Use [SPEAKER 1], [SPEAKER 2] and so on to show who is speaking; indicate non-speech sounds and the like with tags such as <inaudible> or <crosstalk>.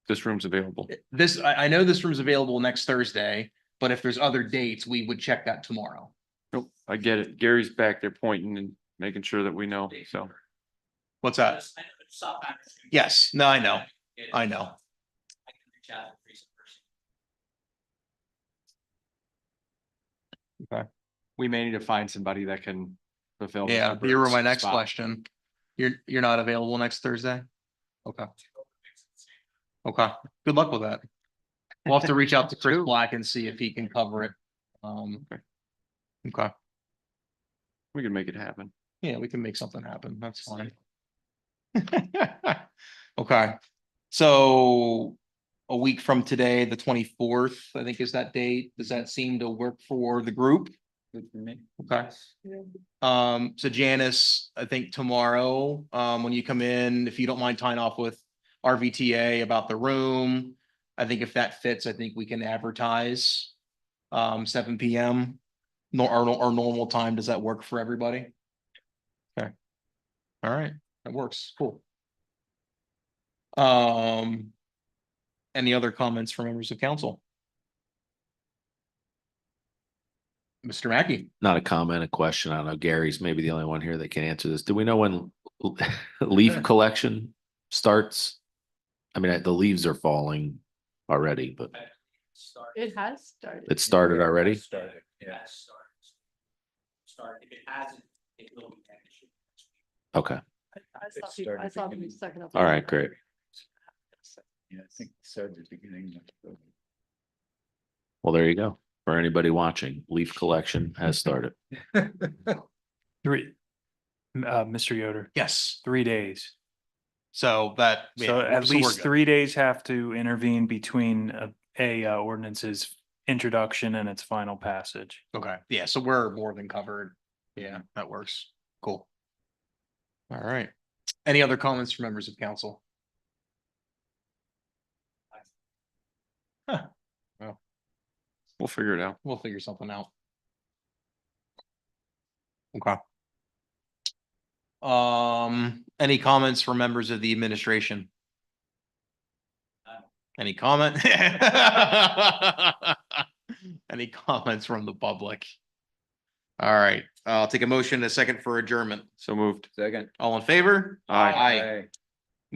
[SPEAKER 1] This room's available.
[SPEAKER 2] This, I, I know this room's available next Thursday, but if there's other dates, we would check that tomorrow.
[SPEAKER 1] Nope, I get it. Gary's back there pointing and making sure that we know, so.
[SPEAKER 2] What's that?
[SPEAKER 3] Yes, I know, it's South Patterson.
[SPEAKER 2] Yes, no, Uh, I know.
[SPEAKER 3] It is.
[SPEAKER 2] I know.
[SPEAKER 3] I can reach out to the recent person.
[SPEAKER 4] we may need to find somebody that can
[SPEAKER 1] Oh,
[SPEAKER 4] fulfill. the
[SPEAKER 2] Yeah,
[SPEAKER 4] temporary
[SPEAKER 2] here were my next
[SPEAKER 4] spot.
[SPEAKER 2] question. You're, you're not available next Thursday? Okay, okay. Good luck with that. We'll have to reach out to Chris Black and see if he can cover it. Um.
[SPEAKER 1] Okay.
[SPEAKER 2] Okay,
[SPEAKER 1] We can make it happen.
[SPEAKER 2] yeah, we can make something happen. That's fine. <laughs> Okay, so a week from today, the twenty-fourth, I think is that date. Does that seem to work for the group? Okay. Um, so Janice, I think tomorrow, um, when you come in, if you don't mind tying off with RVTA about the room. I think if that fits, I think we can advertise, um, seven P M. Nor, our, our normal time. Does that work for everybody? Okay. All right, that works. Cool. Um, any other comments from members of council? Mr. Mackey?
[SPEAKER 5] not a comment, a question. I don't know. Gary's maybe the only one here that can answer this. Do we know when <laughs> leaf collection starts? I mean, I- the leaves are falling already, but
[SPEAKER 3] Start-
[SPEAKER 6] It has started.
[SPEAKER 5] it started already.
[SPEAKER 3] Started, yeah. Start. Start, if it hasn't, it will be managed.
[SPEAKER 5] Okay.
[SPEAKER 6] I- I saw people, I saw people sucking up.
[SPEAKER 5] All right, great. Well, there you go. For anybody watching, leaf collection has started.
[SPEAKER 7] Three, m- uh, Mr. Yoder,
[SPEAKER 2] Yes,
[SPEAKER 7] three days.
[SPEAKER 2] so that. yeah,
[SPEAKER 7] So at
[SPEAKER 2] so we're
[SPEAKER 7] least
[SPEAKER 2] good.
[SPEAKER 7] three days have to intervene between a, a uh, ordinance's introduction and its final passage.
[SPEAKER 2] Okay, yeah, so we're more than covered. Yeah, that works. Cool. All right. Any other comments from members of council?
[SPEAKER 1] We'll figure it out.
[SPEAKER 2] We'll figure something out. Okay. Um, any comments from members of the administration? Any comment? <laughs> Any comments from the public? All right, I'll take a motion, and a second for adjournment.
[SPEAKER 1] So moved.
[SPEAKER 4] Second.
[SPEAKER 2] All in favor?
[SPEAKER 1] Aye.
[SPEAKER 2] Aye.